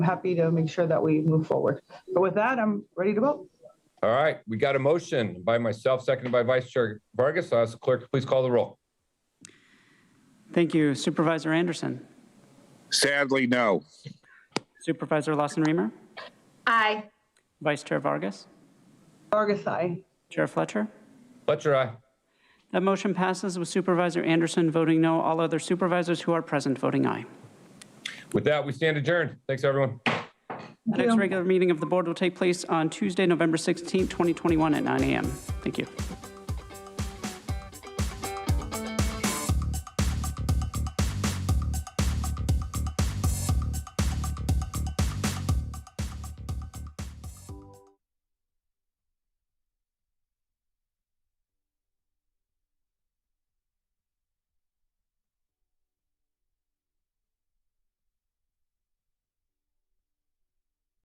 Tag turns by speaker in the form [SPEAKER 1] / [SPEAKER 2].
[SPEAKER 1] I'm happy to make sure that we move forward. But with that, I'm ready to vote.
[SPEAKER 2] All right, we got a motion by myself, seconded by Vice Chair Vargas. I'll ask the clerk to please call the roll.
[SPEAKER 3] Thank you. Supervisor Anderson.
[SPEAKER 4] Sadly, no.
[SPEAKER 3] Supervisor Lawson Reamer.
[SPEAKER 5] Aye.
[SPEAKER 3] Vice Chair Vargas.
[SPEAKER 1] Vargas, aye.
[SPEAKER 3] Chair Fletcher.
[SPEAKER 2] Fletcher, aye.
[SPEAKER 3] That motion passes with Supervisor Anderson voting no, all other supervisors who are present voting aye.
[SPEAKER 2] With that, we stand adjourned. Thanks, everyone.
[SPEAKER 3] The next regular meeting of the board will take place on Tuesday, November 16th, 2021 at 9 a.m. Thank you.